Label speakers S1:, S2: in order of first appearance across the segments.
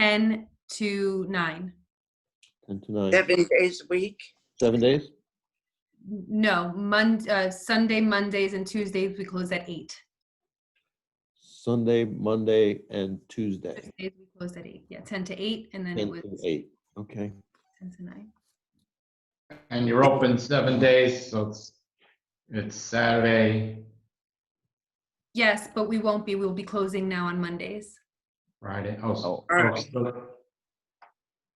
S1: 10 to 9.
S2: 10 to 9,
S3: seven days a week.
S2: seven days?
S1: No, Mon, uh, Sunday, Mondays, and Tuesdays, we close at 8.
S2: Sunday, Monday, and Tuesday,
S1: Tuesdays, we closed at 8. Yeah, 10 to 8, and then
S2: 10
S1: it was
S2: to 8. Okay,
S1: 10 to 9.
S4: And you're open seven days, so it's, it's Saturday,
S1: Yes, but we won't be. We'll be closing now on Mondays.
S4: Friday, oh, so.
S3: Oh.
S4: oh, so-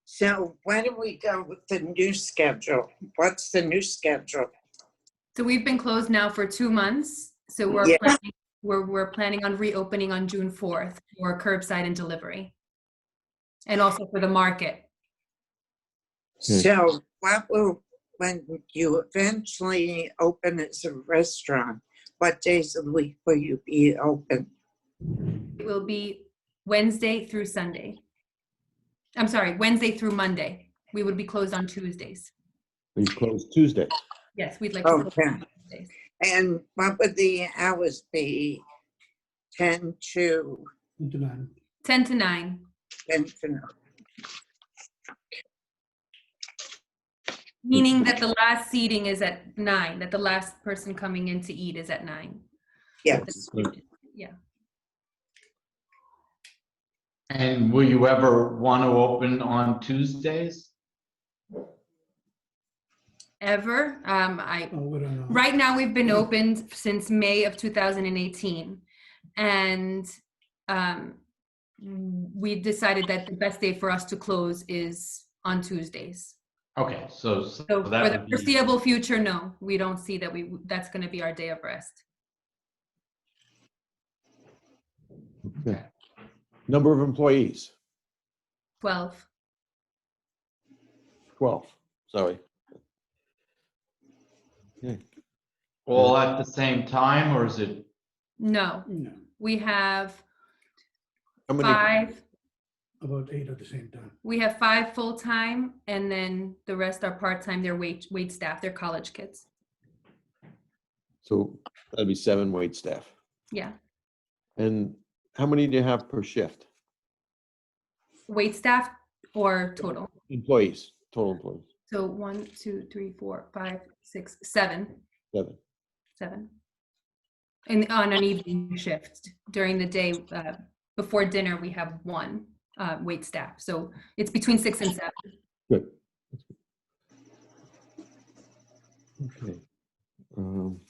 S3: So why do we go with the new schedule? What's the new schedule?
S1: So we've been closed now for two months. So we're,
S3: Yeah.
S1: planning, we're, we're planning on reopening on June 4th for curbside and delivery. And also for the market.
S2: Hmm.
S3: So what will, when you eventually open as a restaurant, what days of the week will you be open?
S1: It will be Wednesday through Sunday. I'm sorry, Wednesday through Monday. We would be closed on Tuesdays.
S2: we close Tuesday.
S1: Yes, we'd like to. close
S3: Okay.
S1: on Tuesdays.
S3: And what would the hours be? 10 to,
S1: 10 to 9.
S3: 10 to,
S1: Meaning that the last seating is at nine, that the last person coming in to eat is at nine.
S3: yes.
S4: And will you ever want to open on Tuesdays?
S1: Ever, um, I,
S5: Oh, we don't know.
S1: right now we've been open since May of 2018. And, um, we decided that the best day for us to close is on Tuesdays.
S4: Okay, so, so
S1: So for
S4: that
S1: the
S4: would be,
S1: foreseeable future, no, we don't see that we, that's gonna be our day of rest.
S2: Number of employees,
S1: Twelve,
S2: 12, sorry.
S4: all at the same time, or is it,
S1: no,
S5: No,
S1: we have
S2: How many,
S1: five,
S5: about eight at the same time.
S1: we have five full-time and then the rest are part-time, they're wait, wait staff, they're college kids.
S2: so that'd be seven wait staff.
S1: Yeah,
S2: And how many do you have per shift?
S1: wait staff or total.
S2: Employees, total employees,
S1: So one, two, three, four, five, six, seven,
S2: seven.
S1: seven. And on an evening shift during the day, uh, before dinner, we have one, uh, wait staff. So it's between six and seven.
S2: Okay. Um,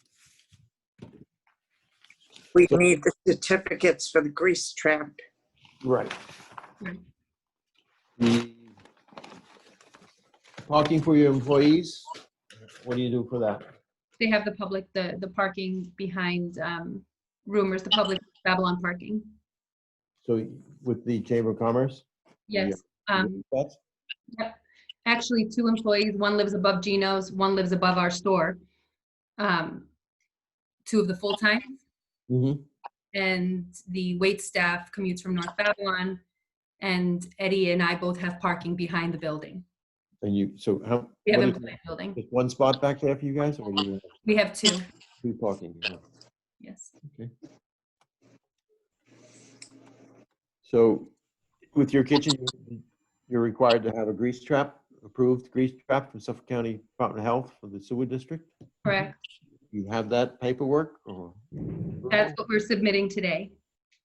S3: We need the certificates for the grease trap.
S2: Right.
S1: Right.
S2: The Parking for your employees, what do you do for that?
S1: they have the public, the, the parking behind um rumors, the public Babylon parking.
S2: So with the Chamber of Commerce?
S1: Yes. Um
S2: That's
S1: Actually, two employees, one lives above Gino's, one lives above our store. Um Two of the full-time
S2: mhm.
S1: and the wait staff commutes from North Babylon. And Eddie and I both have parking behind the building.
S2: And you, so how,
S1: We have
S2: what is-
S1: employee building.
S2: just one spot back there for you guys or you have
S1: We have two,
S2: two parking?
S1: yes.
S2: So with your kitchen, you- you're required to have a grease trap, approved grease trap from Suffolk County Department of Health for the sewer district?
S1: Correct.
S2: You have that paperwork or
S1: That's what we're submitting today.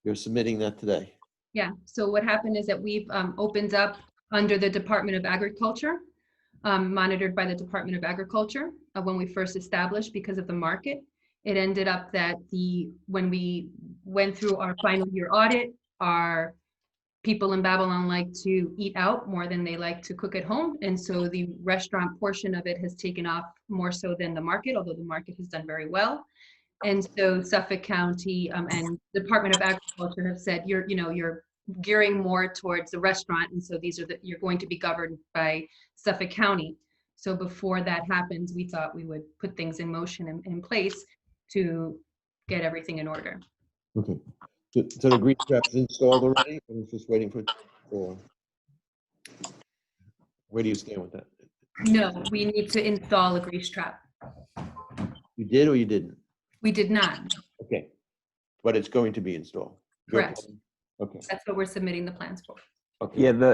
S2: you're submitting that today?
S1: Yeah, so what happened is that we've um, opened up under the Department of Agriculture, um, monitored by the Department of Agriculture uh, when we first established because of the market. It ended up that the, when we went through our final year audit, our people in Babylon like to eat out more than they like to cook at home. And so the restaurant portion of it has taken off more so than the market, although the market has done very well. And so Suffolk County um, and Department of Agriculture have said, you're, you know, you're gearing more towards the restaurant. And so these are the, you're going to be governed by Suffolk County. So before that happens, we thought we would put things in motion and in place to get everything in order.
S2: Okay, so so the grease trap is installed already, and it's just waiting for, for? Where do you stand with that?
S1: No, we need to install a grease trap.
S2: You did or you didn't?
S1: We did not.
S2: Okay, but it's going to be installed? Your
S1: Correct.
S2: plan? Okay,
S1: That's what we're submitting the plans for.
S6: Okay.
S2: Yeah, the,